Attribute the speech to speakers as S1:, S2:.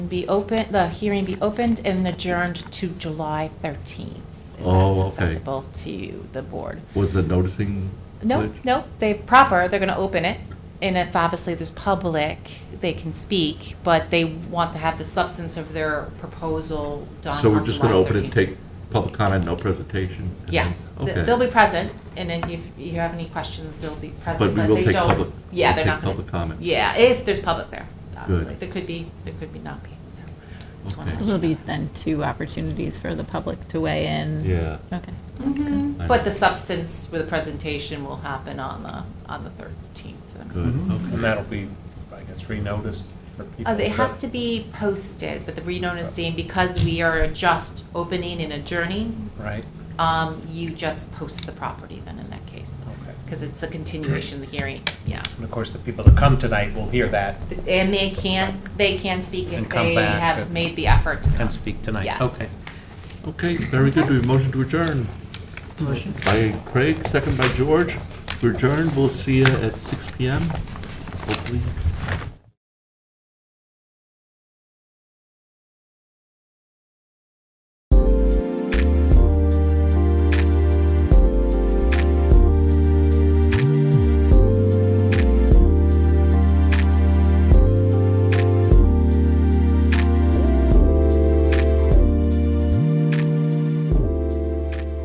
S1: be open, the hearing be opened and adjourned to July 13th. if
S2: Oh, okay.
S1: That's acceptable to the board.
S2: Was the noticing?
S1: No,
S2: glitch?
S1: no, they proper, they're going to open it. And if obviously there's public, they can speak, but they want to have the substance of their proposal done
S2: So we're
S1: on
S2: just going to
S1: July
S2: open it,
S1: 13th.
S2: take public comment, no presentation? and then-
S1: Yes, th-
S2: Okay.
S1: they'll be present, and then if you have any questions, they'll be
S2: But
S1: present,
S2: we
S1: but
S2: will
S1: they
S2: take public-
S1: don't. Yeah,
S2: we'll
S1: they're
S2: take
S1: not. gonna-
S2: public comment.
S1: Yeah, if there's public there, obviously.
S2: Good.
S1: There could be, there could be not be, so. just wanna
S2: Okay.
S1: let
S3: So
S1: you
S3: there'll be
S1: know.
S3: then two opportunities for the public to weigh in?
S2: Yeah.
S3: Okay.
S1: Mhm.
S2: I
S1: But
S2: know.
S1: the substance with the presentation will happen on the, on the 13th.
S2: Good,
S4: Mhm.
S5: And
S2: okay.
S5: that'll be, I guess, renoticed for people.
S1: Uh, Mm-hmm. It has to be posted, but the renoticing, because we are just opening and adjourning,
S5: Right,
S1: um, you just post the property then in that case.
S5: Okay.
S1: Because it's a continuation of the hearing, yeah.
S5: and of course, the people that come tonight will hear that
S1: And they can, they can speak if
S5: And come
S1: they
S5: back
S1: have
S5: and-
S1: made the effort to come.
S5: and speak tonight.
S1: Yes.
S5: Okay.
S2: Okay, very good. We have a motion to adjourn. Motion. By Craig, second by George. We adjourn. We'll see you at 6 PM, hopefully.